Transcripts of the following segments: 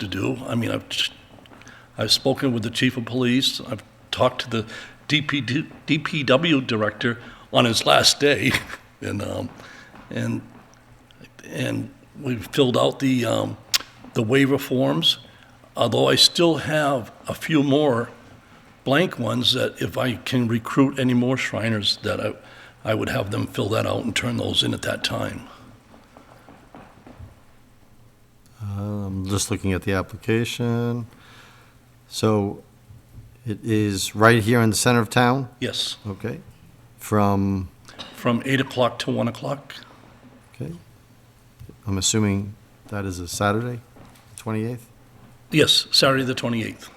to do. I mean, I've, just- I've spoken with the chief of police, I've talked to the DPD, DPW director on his last day, and, um, and, and we've filled out the, um, the waiver forms, although I still have a few more blank ones that if I can recruit any more Shriners, that I, I would have them fill that out and turn those in at that time. I'm Um, just looking at the application. So it is right here in the center of town, Yes, okay? From, from 8 o'clock to 1 o'clock. okay, I'm assuming that is a Saturday, 28th? Yes, Saturday the 28th.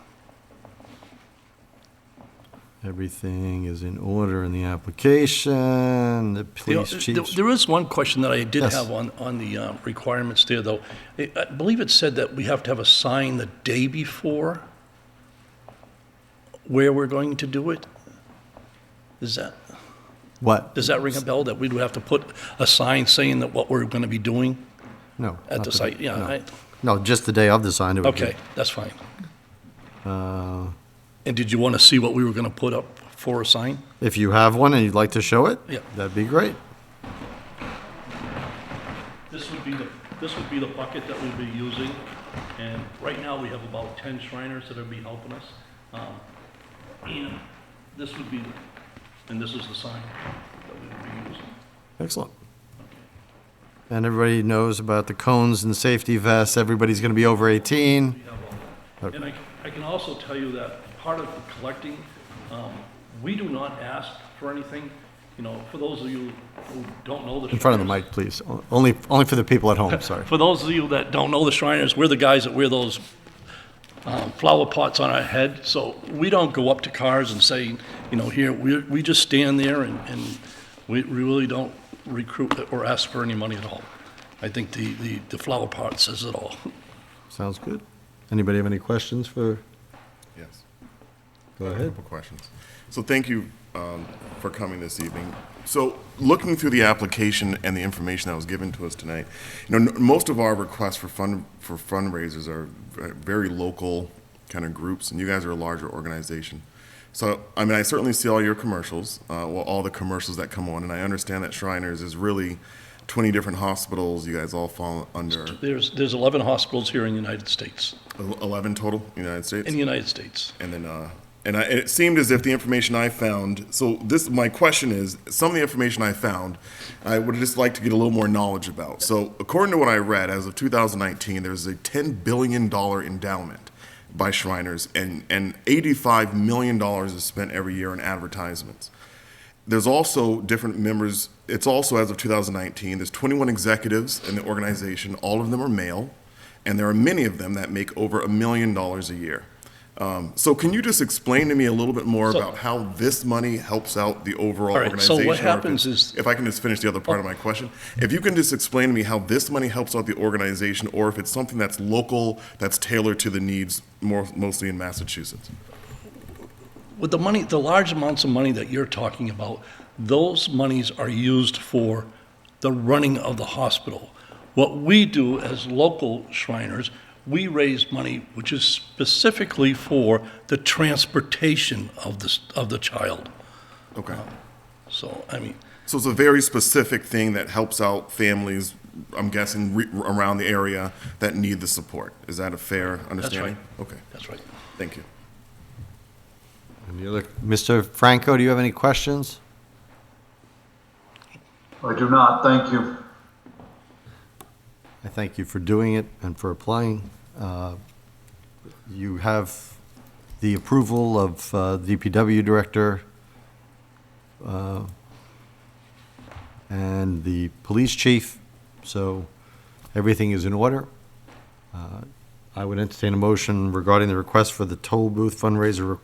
Everything is in order in the application, the You know, police there- chief. There is one question that I did Yes. have on, on the uh, requirements there, though. I I believe it said that we have to have a sign the day before where we're going to do it? Is that, What? does that ring a bell, that we would have to put a sign saying that what we're going to be doing No. at not the site? Yeah, no. I- No, just the day of the sign. it would be- okay, that's fine. Uh, And did you want to see what we were going to put up for a sign? If you have one and you'd like to show it? Yeah. That'd be great. This would be the, this would be the bucket that we'd be using, and right now we have about ten Shriners that would be helping us. Um, And this would be, and this is the sign that we would be using. Excellent. And everybody knows about the cones and safety vests. Everybody's going to be over 18. We have all that. And I, I can also tell you that part of collecting, um, we do not ask for anything, you know, for those of you who don't know the. In front of the Shriners, mic, please. O- Only, only for the people at home, sorry. For those of you that don't know the Shriners, we're the guys that wear those um, flower pots on our head. So we don't go up to cars and say, you know, here, we, we just stand there and, and we really don't recruit or ask for any money at all. I think the, the, the flower pot says it all. Sounds good. Anybody have any questions for, Yes. go I have A ahead. couple questions. So thank you um, for coming this evening. So looking through the application and the information that was given to us tonight, you know, n- most of our requests for fund, for fundraisers are v- very local kind of groups, and you guys are a larger organization. So, I mean, I certainly see all your commercials, uh, well, all the commercials that come on, and I understand that Shriners is really 20 different hospitals, you guys all fall under There's, there's 11 hospitals here in the United States, el- 11 total, United States? in the United States. And then, uh, and I, and it seemed as if the information I found, so this, my question is, some of the information I found, I would just like to get a little more knowledge about. So according to what I read, as of 2019, there's a $10 billion endowment by Shriners and, and $85 million is spent every year in advertisements. There's also different members, it's also as of 2019, there's 21 executives in the organization, all of them are male, and there are many of them that make over a million dollars a year. Um, So can you just explain to me a little bit more So- about how this money helps out the overall All right, so organization? what or if it's- happens is- Oh. If I can just finish the other part of my question, if you can just explain to me how this money helps out the organization, or if it's something that's local, that's tailored to the needs more, mostly in Massachusetts? With the money, the large amounts of money that you're talking about, those monies are used for the running of the hospital. What we do as local Shriners, we raise money which is specifically for the transportation of the, s- of the child. Okay. So, I mean, So it's a very specific thing that helps out families, I'm guessing, re- around the area that need the support. Is that a fair understanding? Okay, that's right. thank you. Any other- Mr. Franco, do you have any questions? I do not, thank you. I thank you for doing it and for applying. Uh, You have the approval of uh, DPW Director uh, and the Police Chief, so everything is in order. Uh, I would entertain a motion regarding the request for the toll booth fundraiser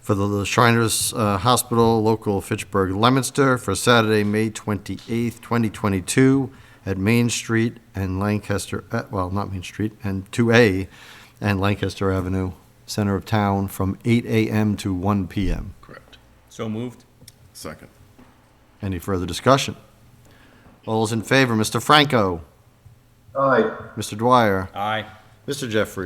for the Shriners uh, Hospital, local Fitchburg, Leominster, for Saturday, May 28th, 2022, at Main Street and Lancaster, uh, well, not Main Street, and 2A and Lancaster Avenue, center of town, from 8 a.m. to 1 p.m. Correct. So moved. Second. Any further discussion? All those in favor, Mr. Franco, Aye, Mr. Dwyer, Aye. Mr. Jeffries?